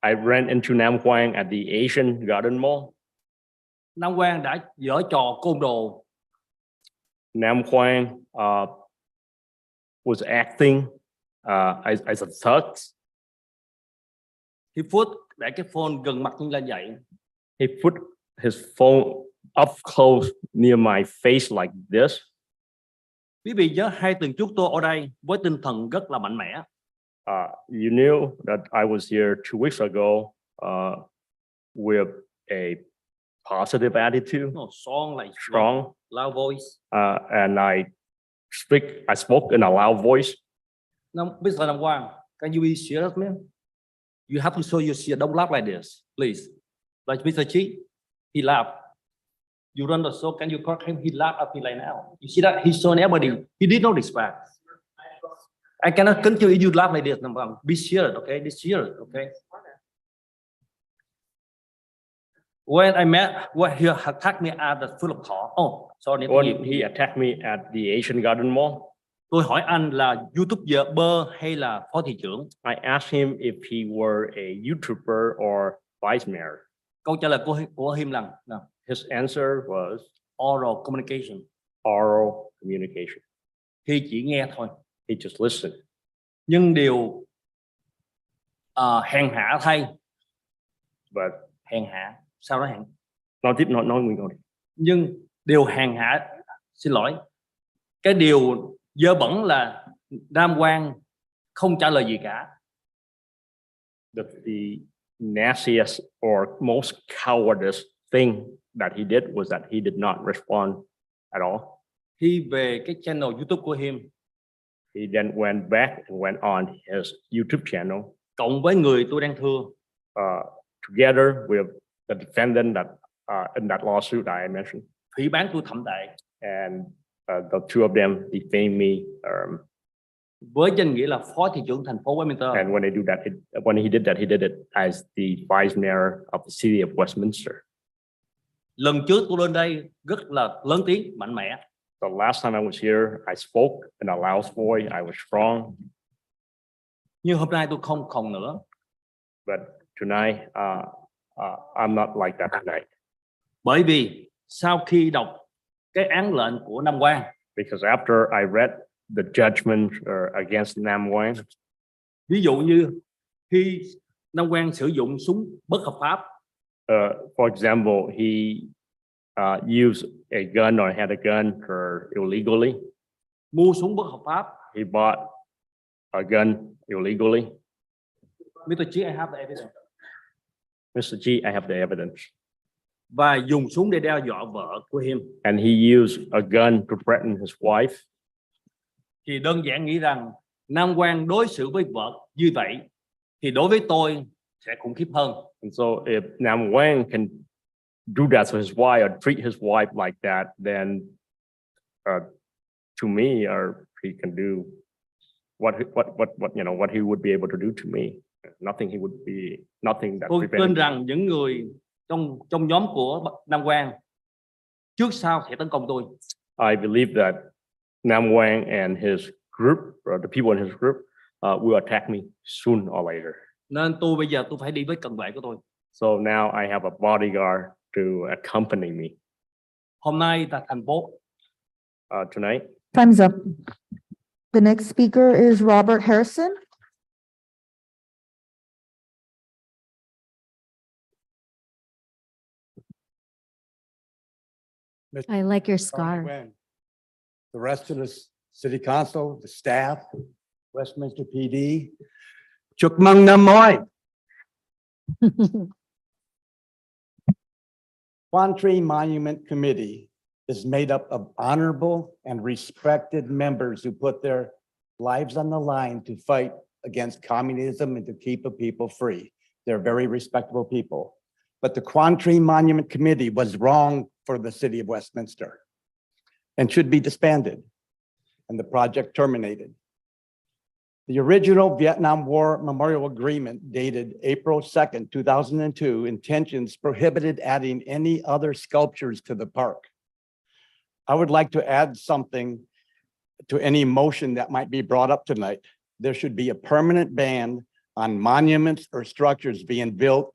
I ran into Nam Quang at the Asian Garden Mall. Nam Quang đã dở trò côn đồ, Nam Quang uh, was acting uh, as, as a thug. khi Phước để cái phone gần mặt như là vậy, He put his phone up close near my face like this. Quý vị nhớ hai tuần trước tôi ở đây với tinh thần rất là mạnh mẽ. Uh, you knew that I was here two weeks ago uh, with a positive attitude, Nó son lại strong, loud voice. uh, and I speak. I spoke in a loud voice. Nam, Mr. Nam Quang, can you be serious man? You have to show your shit. Don't laugh like this, please. Like Mr. Chi, he laughed. You run the show, can you correct him? He laughed at me like now. You see that? He shown everybody. He did not respect. I cannot continue you laugh like this, Nam Quang. Be serious, okay? Be serious, okay? When I met, when he attacked me at the full of thought. Oh, sorry. tôi When he attacked me at the Asian Garden Mall, Tôi hỏi anh là YouTuber hay là phó thị trưởng? I asked him if he were a YouTuber or vice mayor. Câu trả lời của của Him lần nè, His answer was oral communication. oral communication. Khi chỉ nghe thôi. He just listened. Nhưng điều à, hèn hạ thay, But hèn hạ, sau đó hèn. nói tiếp nói nói mình thôi. Nhưng điều hèn hạ, xin lỗi, cái điều dơ bẩn là Nam Quang không trả lời gì cả. that the nastiest or most cowardice thing that he did was that he did not respond at all. Khi về cái channel YouTube của Him, He then went back and went on his YouTube channel, cộng với người tôi đang thưa, uh, together with the defendant that, uh, in that lawsuit I mentioned. phỉ bán tôi thậm tệ, And, uh, the two of them defamed me. Um, với danh nghĩa là phó thị trưởng thành phố Westminster. and when they do that, it, when he did that, he did it as the vice mayor of the city of Westminster. lần trước tôi lên đây rất là lớn tiếng mạnh mẽ The last time I was here, I spoke in a loud voice. I was strong. nhưng hôm nay tôi không còn nữa But tonight, uh, uh, I'm not like that tonight bởi vì sau khi đọc cái án lệnh của Nam Quang because after I read the judgment uh, against Nam Quang, ví dụ như khi Nam Quang sử dụng súng bất hợp pháp uh, for example, he uh, used a gun or had a gun or illegally. mua súng bất hợp pháp He bought a gun illegally. Mr. Chí I have the evidence Mr. G, I have the evidence. và dùng súng để đe dọa vợ của him And he used a gun to threaten his wife. thì đơn giản nghĩ rằng Nam Quang đối xử với vợ như vậy thì đối với tôi sẽ khủng khiếp hơn And so if Nam Wang can do that to his wife or treat his wife like that, then uh, to me, or he can do what, he- what, what, what, you know, what he would be able to do to me. Nothing he would be, nothing that tôi tin prevents. rằng những người trong trong nhóm của Nam Quang trước sau sẽ tấn công tôi I believe that Nam Wang and his group, or the people in his group, uh, will attack me soon or later. nên tôi bây giờ tôi phải đi với cận vệ của tôi So now I have a bodyguard to accompany me hôm nay là thành phố uh, tonight. Time's up. The next speaker is Robert Harrison. I like your Tony scarf. Nguyen, The rest of the s- city council, the staff, Westminster PD. Chúc mừng năm mới. Quan Tri Monument Committee is made up of honorable and respected members who put their lives on the line to fight against communism and to keep the people free. They're very respectable people. But the Quan Tri Monument Committee was wrong for the city of Westminster and should be disbanded and the project terminated. The original Vietnam War Memorial Agreement dated April 2nd, 2002 intentions prohibited adding any other sculptures to the park. I would like to add something to any motion that might be brought up tonight. There should be a permanent ban on on monuments or structures being built